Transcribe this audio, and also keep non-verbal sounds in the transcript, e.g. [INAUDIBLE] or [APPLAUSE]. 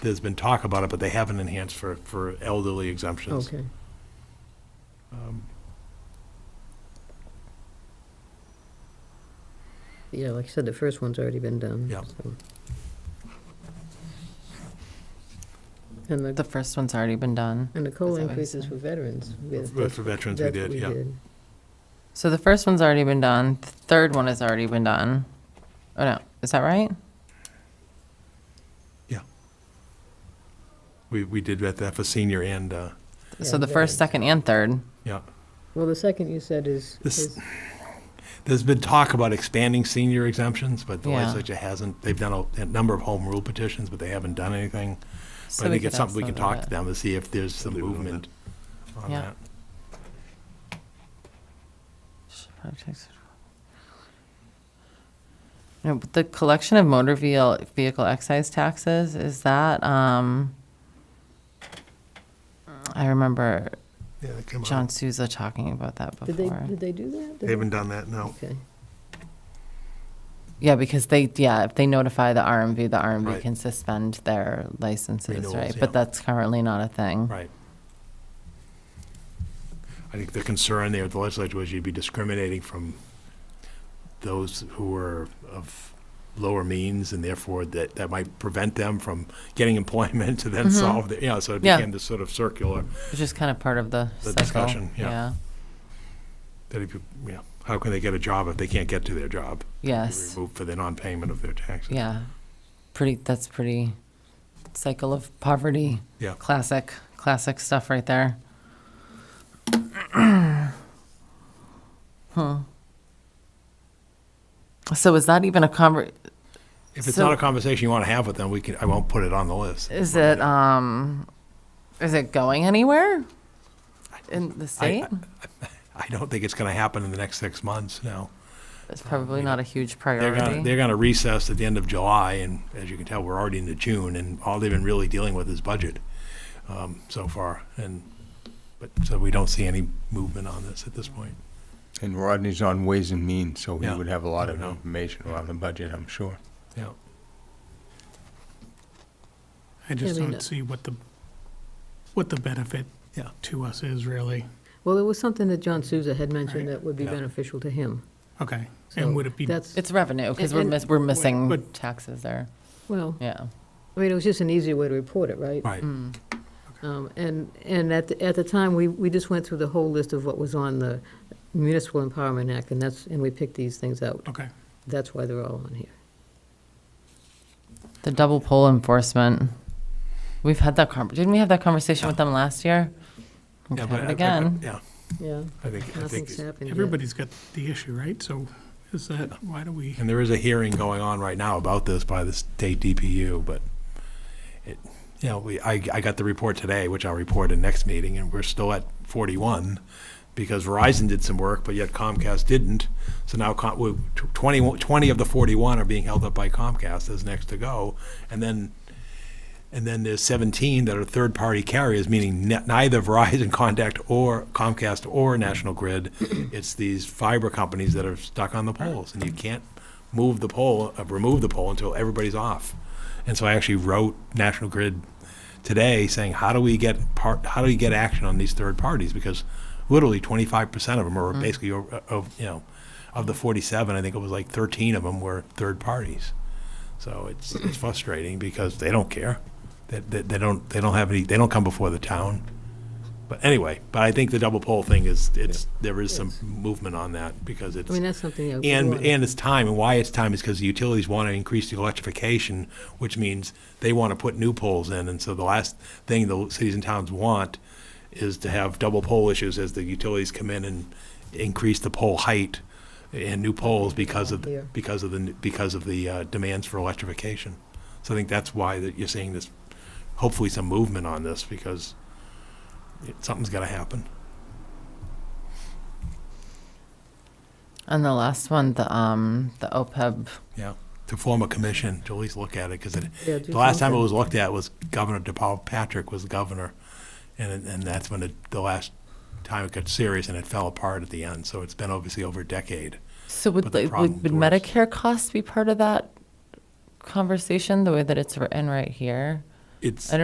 there's been talk about it, but they haven't enhanced for, for elderly exemptions. Okay. Um, Yeah, like I said, the first one's already been done. Yeah. so. And the, The first one's already been done. and the COLA That's what I increases said. for veterans. with- But For veterans, we that's what did, yeah. So the first one's already been done. The third one has already been done. Oh no, is that right? We, we did that for senior and, uh, So the Yeah. first, second, and third. yeah. Well, the second you said is, This- is- There's been talk about expanding senior exemptions, but the Yeah. legislature hasn't. They've done a, a number of home rule petitions, but they haven't done anything. So But I think could it's something we ask can them talk to about them to see if there's some Leave it on movement on Yeah. that. it. No, but the collection of motor vehicle vehicle excise taxes is that. Um, I remember Yeah, they come John Souza talking about that did they, before. did they do that? They haven't done that, no. Okay. Yeah, because they, yeah, if they notify the RMV, the RMV Right. can suspend their licenses, Renewals, right? yeah. But that's currently not a thing. Right. I think the concern there with the legislature was you'd be discriminating from those who were of lower means and therefore that, that might prevent them from getting employment to then Mhm. solve, the- you know, so it Yeah. became this sort of circular, It's just kind of part of the The cycle. discussion, yeah. Yeah, that if you, you know, how can they get a job if they can't get to their job? yes, Removed for the non-payment of their taxes. yeah. Pretty, that's pretty cycle of poverty. Yeah. Classic, classic stuff right there. [CLEARS THROAT] Huh. So is that even a conver, If it's So- not a conversation you want to have with them, we can, I won't put it on the list. is it, um, is it going anywhere? In the state? I don't think it's going to happen in the next six months, no. It's probably not a huge They're gonna, priority. they're gonna recess at the end of July, and as you can tell, we're already into June, and all they've been really dealing with is budget, um, so far, and, but, so we don't see any movement on this at this point. And Rodney's on Ways and Means, so he Yeah. would have a lot of No. information around the budget, I'm sure. Yeah, I just mean, uh, don't see what the, what the benefit Yeah. to us is really. Well, it was something that John Souza had mentioned Right. that would be Yeah. beneficial to him. Okay, So and would it be, That's, It's revenue, because And- we're and- miss, we're missing but- taxes there, well, yeah. I mean, it was just an easier way to report it, right? right, Um, And, and at, the- at the time, we, we just went through the whole list of what was on the Municipal Empowerment Act, and that's, and we picked these things out. okay, That's why they're all on here. The double poll enforcement, we've had that conver, didn't we have that conversation with them last year? We yeah, can but have I- it I- again, Yeah, Yeah, I think, I think, nothing's happened yet. everybody's got the issue, right? So is that, why do we, and there is a hearing going on right now about this by the state DPU, but it, you know, we, I, I got the report today, which I'll report in next meeting, and we're still at forty-one, because Verizon did some work, but yet Comcast didn't. So now Com- we- tw- 20, 20 of the 41 are being held up by Comcast as next to go. And then, and then there's 17 that are third-party carriers, meaning ne- neither Verizon [LAUGHS] Contact or Comcast or National Grid. It's these fiber companies that are stuck on the poles, and you can't move the pole, uh, remove the pole until everybody's off. And so I actually wrote National Grid today saying, how do we get part, how do we get action on these third parties? Because literally twenty-five percent of them are basically o- uh, of, you know, of the forty-seven, I think it was like thirteen of them were third parties. So it's, it's frustrating because they don't care. They, they, they don't, they don't have any, they don't come before the town. But anyway, but I think the double poll thing is, it's, there is some movement on that because it's. I mean, that's something that. we And, want. and it's time, and why it's time is because the utilities want to increase the electrification, which means they want to put new poles in, and so the last thing the cities and towns want is to have double pole issues as the utilities come in and increase the pole height and new poles because of, Here. because of the, because of the uh, demands for electrification. So I think that's why that you're seeing this, hopefully some movement on this, because it- something's got to happen. and the last one, the, um, the OPEB, Yeah, to form a commission, to at least look at it, because it, Yeah, do the last time it something. was looked at was Governor DePaul Patrick was governor, and, and that's when it, the last time it got serious and it fell apart at the end, so it's been obviously over a decade. so would, But the like, would problem's would worse. Medicare costs be part of that conversation, the way that it's written right here? it's. I don't